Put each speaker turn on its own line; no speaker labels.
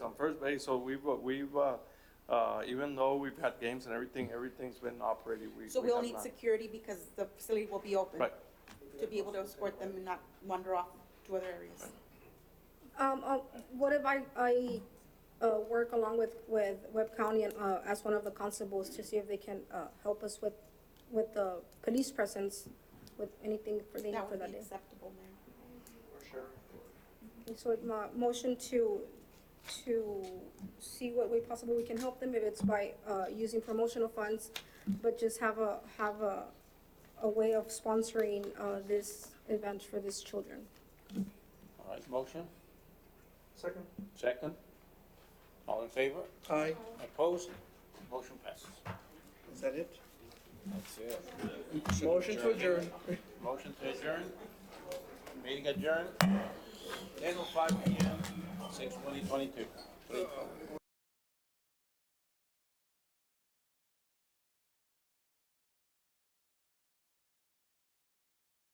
on first base, so we've, uh, we've, uh, uh, even though we've had games and everything, everything's been operated, we.
So
we
we'll
have
need
not-
security because the facility will be open.
Right.
To be able to escort them and not wander off to other areas.
Um, uh, what if I, I, uh, work along with, with Webb County and, uh, as one of the constables to see if they can, uh, help us with, with the police presence, with anything for the,
That
for
would
that
be
day?
acceptable, Mayor.
So my motion to, to see what way possible we can help them, if it's by, uh, using promotional funds, but just have a, have a, a way of sponsoring, uh, this event for these children.
All right, motion,
Second.
second. All in favor?
Aye.
Opposed? Motion passes.
Is that it?
That's it.
Motion to adjourn.
Motion to adjourn. Meeting adjourned. Ten oh five P M, six twenty twenty-two.